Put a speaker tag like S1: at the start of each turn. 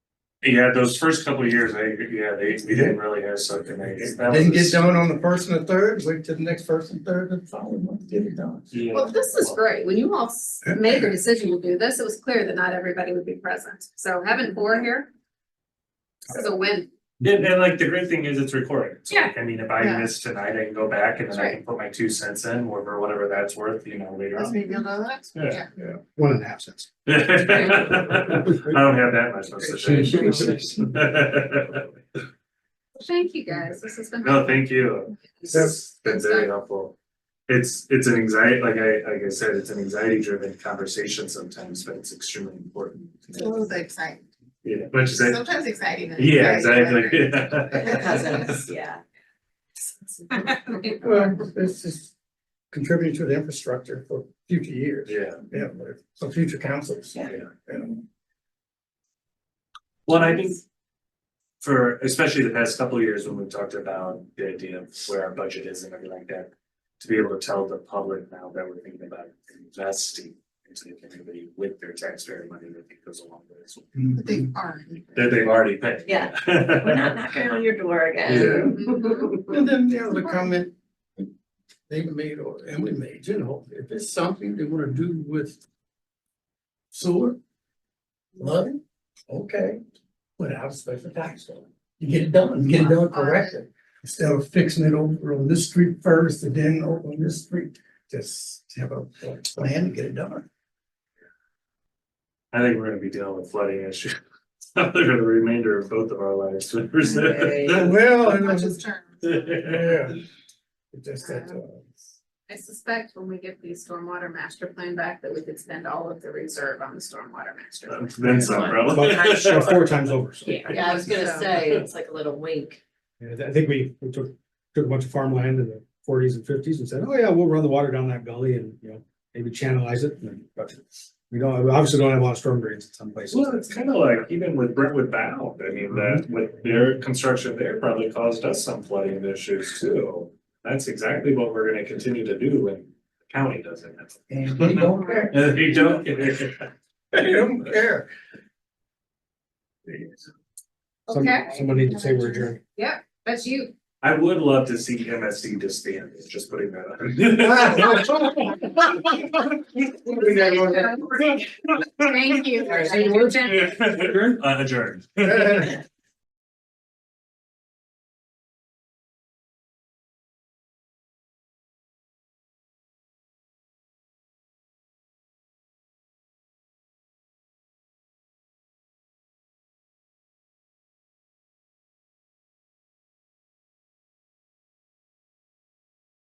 S1: Yeah, those first couple of years, I, yeah, they, we didn't really have something, I guess. that
S2: Didn't
S1: was-
S2: get done on the first and the third, wait till the next first and third, and finally want to get it done.
S1: Yeah.
S3: Well, this is great. When you all s- made the decision to do this, it was clear that not everybody would be present. So having four here. This is a win.
S1: And and like the great thing is it's recorded, so like, I mean, if I
S3: Yeah.
S1: miss tonight, I can go back and then I
S3: Right.
S1: can put my two cents in, or or whatever that's worth, you know, later on. Yeah.
S4: One and a half cents.
S1: I don't have that much, I'm such
S3: Thank you, guys. This has been.
S1: No, thank you,
S3: This
S1: it's
S3: is-
S1: been very helpful. It's it's an anxiety, like I like I said, it's an anxiety driven conversation sometimes, but it's extremely important.
S5: It was exciting,
S1: Yeah, but you say,
S5: sometimes exciting. and
S1: yeah,
S5: exciting.
S1: exactly,
S5: Cousins, yeah.
S2: Well, this is contributing to the infrastructure for future years,
S1: yeah.
S2: yeah, but for future councils.
S5: Yeah.
S2: And
S1: Well, and I think for especially the past couple of years when we've talked about the idea of where our budget is and everything like that. To be able to tell the public now that we're thinking about investing into the community with their taxpayer money that goes along with this.
S5: But they are.
S1: That they've already paid.
S6: Yeah. We're not knocking on your door
S1: Yeah.
S6: again.
S3: Mhm.
S2: And then the other comment they made or Emily made, you know, if it's something they wanna do with sewer, flooding, okay, without special tax on it. You get it done, get it done correctly. Instead of fixing it over on this street first and then over on this street, just have a plan to get it done.
S1: I think we're gonna be dealing with flooding issues for the remainder of both of our lives.
S6: Right.
S2: Well, it
S5: Much
S2: was-
S5: is term.
S2: yeah. It's just that, uh,
S3: I suspect when we get the stormwater master plan back that we could spend all of the reserve on the stormwater master. plan.
S1: Then some, probably.
S4: About Four times over, so.
S6: Yeah, I was gonna say, it's like a little wink.
S4: Yeah, I think we, we took, took a bunch of farmland in the forties and fifties and said, oh yeah, we'll run the water down that gully and, you know, maybe channelize it, and then- but we don't, we obviously don't have a lot of storm drains in some places.
S1: Well, it's kind of like even with Brentwood Bound, I mean, that with their construction there probably caused us some flooding issues too. That's exactly what we're gonna continue to do when the county does it.
S2: and they don't care.
S1: And they don't.
S2: They don't care.
S4: Some-
S3: Okay,
S4: Somebody needs to say we're adjourned.
S3: that's you.
S1: I would love to see MSD disband, just putting that out.
S3: Thank you.
S1: Uh, adjourned.
S2: Yeah.